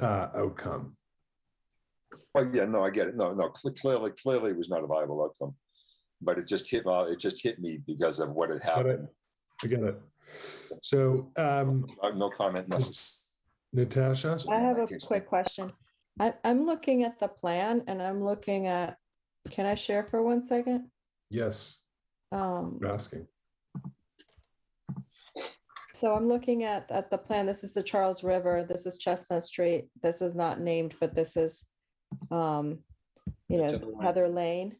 uh, outcome. Well, Oh, yeah, no, I get it. No, no, cl- clearly, clearly it was not a viable outcome. But it just hit, uh, it just hit me because of what had Got it? happened. I got it. So, um, Uh, No comment necessary. Natasha, So I in have that a case, quick then- question. I, I'm looking at the plan and I'm looking at, can I share for one second? yes, Um, you're asking. so I'm looking at, at the plan. This is the Charles River. This is Chestnut Street. This is not named, but this is, um, you It's know, other way. Heather Lane.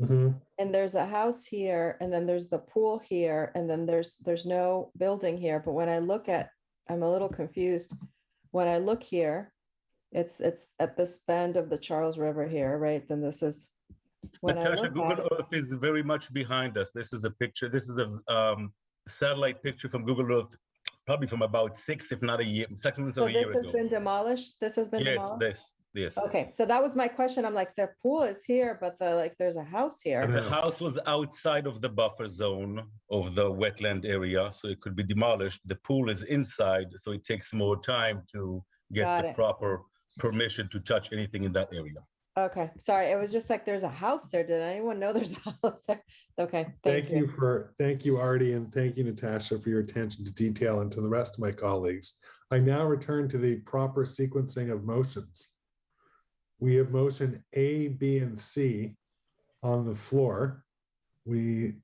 Mhm. And there's a house here and then there's the pool here and then there's, there's no building here. But when I look at, I'm a little confused. When I look here, it's, it's at this bend of the Charles River here, right? Then this is. when I Natasha, look at Google it- Earth is very much behind us. This is a picture, this is a um, satellite picture from Google Earth, probably from about six, if not a year, six months So or a year this has been ago. demolished? This has been Yes, demolished? this, yes. Okay, so that was my question. I'm like, the pool is here, but the, like, there's a house And here. the house was outside of the buffer zone of the wetland area, so it could be demolished. The pool is inside, so it takes more time to Got get the it. proper permission to touch anything in that area. Okay, sorry. It was just like, there's a house there. Did anyone know there's a house there? Okay, Thank you for, thank you, Artie, and thank you, Natasha, for your attention to detail and to the rest of my colleagues. I now return to the proper sequencing of motions. We have motion A, B, and C on the floor. We,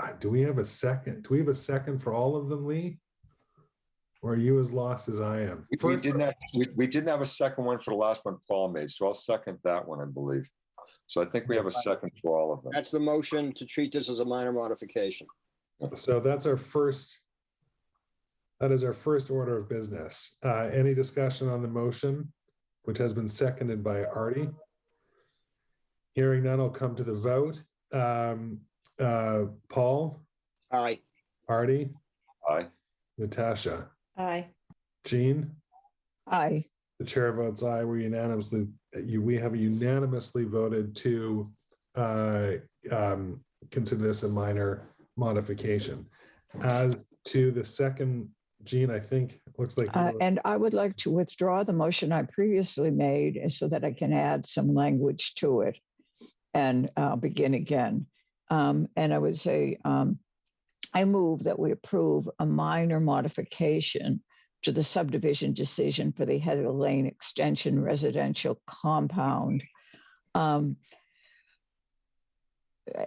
uh, do we have a second? Do we have a second for all of them, Lee? Or are you as lost as I am? We- We First, didn't let's- have, we, we didn't have a second one for the last one Paul made, so I'll second that one, I believe. So I think we have a second for all of them. That's the motion to treat this as a minor modification. So that's our first, that is our first order of business. Uh, Any discussion on the motion, which has been seconded by Artie? Hearing none, I'll come to the vote. Um, uh, Paul, Aye. Artie, Aye. Natasha, Aye. Jean? Aye. The chair votes aye. We unanimously, you, we have unanimously voted to uh, um, consider this a minor modification. As to the second, Gene, I think, it looks like. you Uh, were- And I would like to withdraw the motion I previously made and so that I can add some language to it and I'll begin again. Um, And I would say, um, I move that we approve a minor modification to the subdivision decision for the Heather Lane Extension Residential Compound um,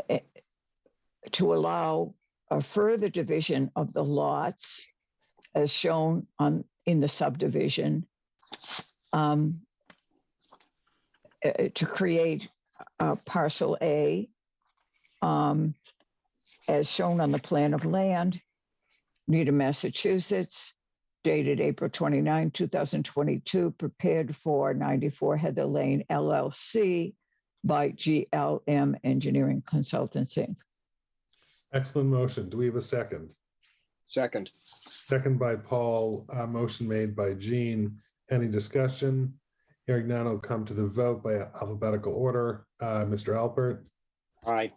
eh, to allow a further division of the lots as shown on, in the subdivision. um, uh, To create uh, parcel A um, as shown on the plan of land, Needham, Massachusetts, dated April 29, 2022, prepared for 94 Heather Lane LLC by GLM Engineering Consultants, Inc. Excellent motion. Do we have a second? Second. Second by Paul, uh, motion made by Gene. Any discussion? Hearing none, I'll come to the vote by alphabetical order. Uh, Mr. Alpert, Aye.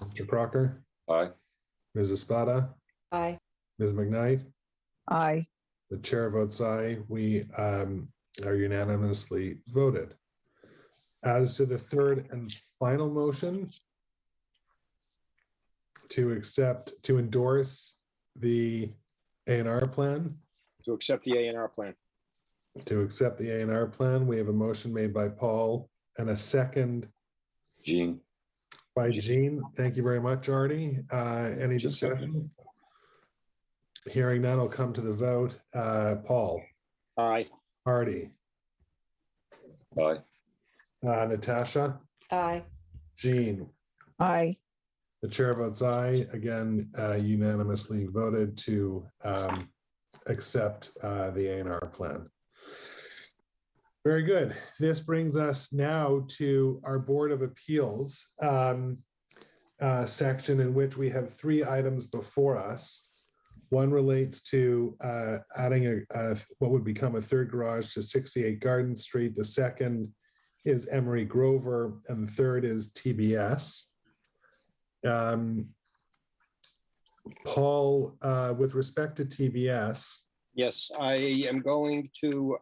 Mr. Crocker, Aye. Ms. Espada, Aye. Ms. McKnight. Aye. The chair votes aye. We um, are unanimously voted. As to the third and final motion to accept, to endorse the A and R plan, To accept the A and R plan. to accept the A and R plan, we have a motion made by Paul and a second Gene, by Jean. Thank you very much, Artie. Uh, Any Just a second. discussion? Hearing none, I'll come to the vote. Uh, Paul, Aye. Artie, aye. uh, Natasha? Aye. Jean, Aye. the chair votes aye. Again, uh, unanimously voted to um, accept uh, the A and R plan. Very good. This brings us now to our Board of Appeals um, uh, section in which we have three items before us. One relates to uh, adding a, a- what would become a third garage to 68 Garden Street. The second is Emery Grover, and the third is TBS. Um, Paul, uh, with respect to TBS, Yes, I am going to